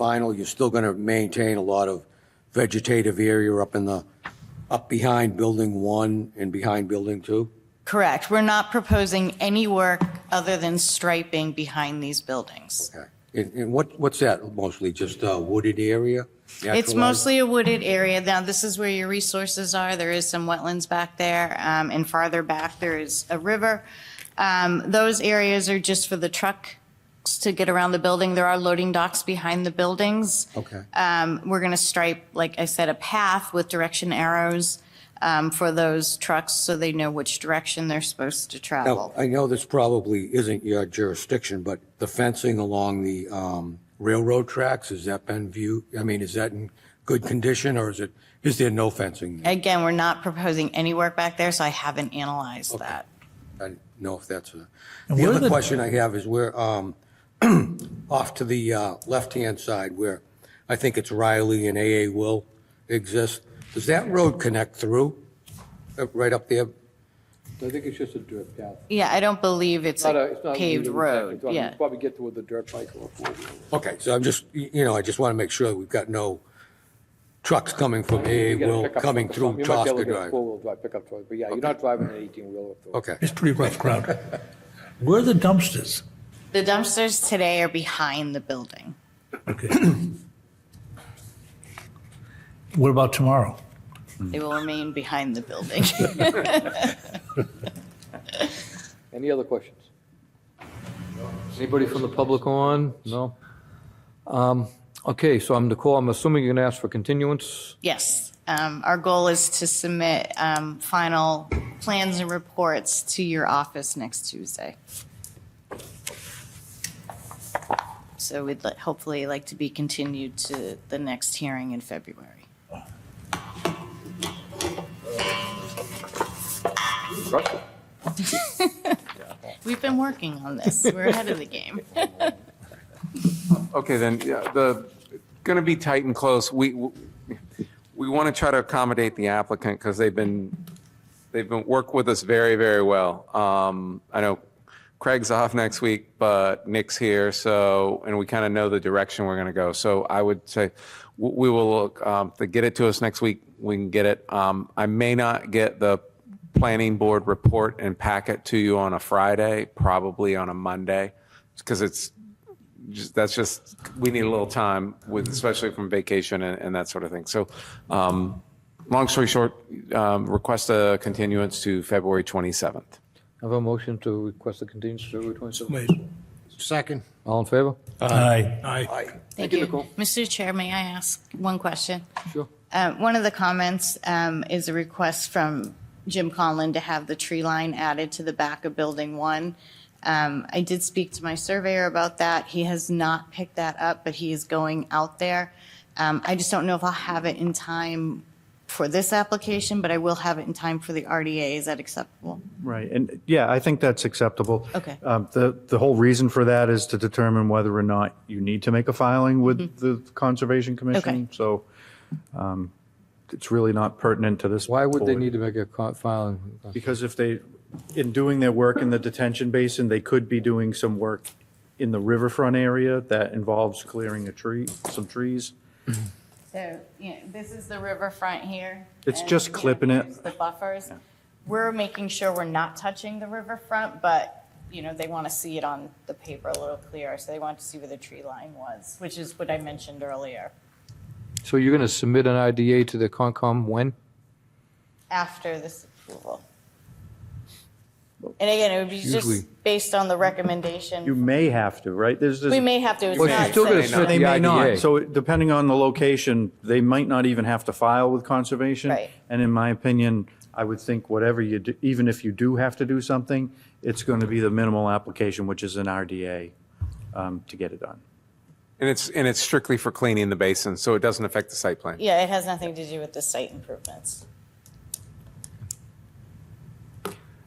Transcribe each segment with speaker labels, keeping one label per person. Speaker 1: vinyl, you're still going to maintain a lot of vegetative area up in the, up behind building one and behind building two?
Speaker 2: Correct. We're not proposing any work other than striping behind these buildings.
Speaker 1: Okay. And, and what, what's that mostly, just a wooded area?
Speaker 2: It's
Speaker 1: Natural-
Speaker 2: mostly a wooded area. Now, this is where your resources are. There is some wetlands back there, um, and farther back, there is a river. Um, Those areas are just for the trucks to get around the building. There are loading docks behind the buildings.
Speaker 1: Okay.
Speaker 2: Um, We're going to stripe, like I said, a path with direction arrows um, for those trucks so they know which direction they're supposed to
Speaker 1: Now,
Speaker 2: travel.
Speaker 1: I know this probably isn't your jurisdiction, but the fencing along the um, railroad tracks, has that been viewed? I mean, is that in good condition or is it, is there no fencing there?
Speaker 2: Again, we're not proposing any work back there, so I haven't analyzed that.
Speaker 1: I didn't know if that's a.
Speaker 3: And
Speaker 1: The
Speaker 3: where
Speaker 1: other
Speaker 3: the-
Speaker 1: question I have is where, um, off to the uh, left-hand side where I think it's Riley and AA Will exist, does that road connect through, uh, right up there?
Speaker 4: I think it's just a dirt path.
Speaker 2: Yeah, I don't believe it's
Speaker 4: Not a-
Speaker 2: a
Speaker 4: it's not a
Speaker 2: paved
Speaker 4: legal
Speaker 2: road,
Speaker 4: access. I mean,
Speaker 2: yeah.
Speaker 4: Probably get to with a dirt bike or a four-wheeler.
Speaker 1: Okay, so I'm just, y- you know, I just want to make sure we've got no trucks coming from AA
Speaker 4: You get a
Speaker 1: Will
Speaker 4: pickup
Speaker 1: coming
Speaker 4: truck or
Speaker 1: through
Speaker 4: something. You might be
Speaker 1: Tosca
Speaker 4: able to get a
Speaker 1: Drive.
Speaker 4: four-wheel drive pickup truck, but yeah, you're not driving an 18-wheeler up the road.
Speaker 1: Okay,
Speaker 3: It's pretty rough crowd. Where are the dumpsters?
Speaker 2: The dumpsters today are behind the building.
Speaker 3: Okay. What about tomorrow?
Speaker 2: They will remain behind the building.
Speaker 4: Any other questions? Anybody from the public on? No? Um, Okay, so I'm Nicole, I'm assuming you're going to ask for continuance?
Speaker 2: Yes, um, our goal is to submit um, final plans and reports to your office next Tuesday. So we'd li- hopefully like to be continued to the next hearing in February. We've been working on this. We're ahead of the game.
Speaker 5: Okay, then, yeah, the, going to be tight and close. We, we want to try to accommodate the applicant because they've been, they've been, work with us very, very well. Um, I know Craig's off next week, but Nick's here, so, and we kind of know the direction we're going to go. So I would say, w- we will, look, um, to get it to us next week, we can get it. Um, I may not get the planning board report and packet to you on a Friday, probably on a Monday, because it's just, that's just, we need a little time with, especially from vacation and, and that sort of thing. So, um, long story short, um, request a continuance to February 27th.
Speaker 4: Have a motion to request a continuance to February 27th.
Speaker 3: Wait.
Speaker 1: second.
Speaker 4: All in favor?
Speaker 3: Aye. Aye.
Speaker 2: Thank
Speaker 4: you,
Speaker 2: you.
Speaker 4: Nicole.
Speaker 2: Mr. Chair, may I ask one question?
Speaker 4: Sure.
Speaker 2: Uh, One of the comments um, is a request from Jim Conlon to have the tree line added to the back of Building 1. Um, I did speak to my surveyor about that. He has not picked that up, but he is going out there. Um, I just don't know if I'll have it in time for this application, but I will have it in time for the RDA. Is that acceptable?
Speaker 6: Right, and yeah, I think that's acceptable.
Speaker 2: Okay.
Speaker 6: Um, The, the whole reason for that is to determine whether or not you need to make a filing with the Conservation
Speaker 2: Mm-hmm. Okay.
Speaker 6: Commission. So um, it's really not pertinent to this.
Speaker 4: Why would they
Speaker 6: board.
Speaker 4: need to make a co- filing?
Speaker 6: Because if they, in doing their work in the detention basin, they could be doing some work in the riverfront area that involves clearing a tree, some trees.
Speaker 2: So, you know, this is the riverfront here.
Speaker 6: It's
Speaker 2: and,
Speaker 6: just
Speaker 2: you know,
Speaker 6: clipping it.
Speaker 2: here's The buffers. We're making sure we're not touching the riverfront, but, you know, they want to see it on the paper a little clearer. So they want to see where the tree line was, which is what I mentioned earlier,
Speaker 4: So you're going to submit an IDA to the Concom when?
Speaker 2: after this approval. And again, it would be
Speaker 4: Usually-
Speaker 2: just based on the
Speaker 6: You
Speaker 2: recommendation.
Speaker 6: may have to, right? There's this.
Speaker 2: We may have to. it's
Speaker 4: Well, she's
Speaker 2: not
Speaker 4: still gonna
Speaker 2: set.
Speaker 4: submit
Speaker 6: They
Speaker 4: the
Speaker 6: may
Speaker 4: IDA.
Speaker 6: not. So depending on the location, they might not even have to file with conservation.
Speaker 2: Right.
Speaker 6: And in my opinion, I would think whatever you do, even if you do have to do something, it's going to be the minimal application, which is an RDA, um, to get it done.
Speaker 5: And it's, and it's strictly for cleaning the basin, so it doesn't affect the site plan.
Speaker 2: Yeah, it has nothing to do with the site improvements.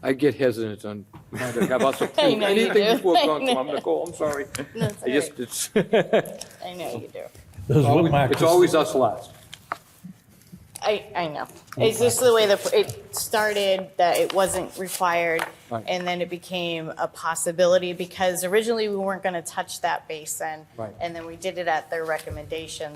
Speaker 4: I get hesitant on trying to have us
Speaker 2: I
Speaker 4: approve
Speaker 2: know you
Speaker 4: anything
Speaker 2: do.
Speaker 4: before
Speaker 2: I
Speaker 4: Concom. I'm
Speaker 2: know.
Speaker 4: Nicole, I'm sorry. I just, it's
Speaker 2: I know you do.
Speaker 3: Those whip
Speaker 4: always-
Speaker 3: marks.
Speaker 4: it's always us last.
Speaker 2: I, I know. It's just the way that it started, that it wasn't required, and then it became a possibility because originally we weren't going to touch that basin.
Speaker 4: Right.
Speaker 2: And then we did it at their recommendation,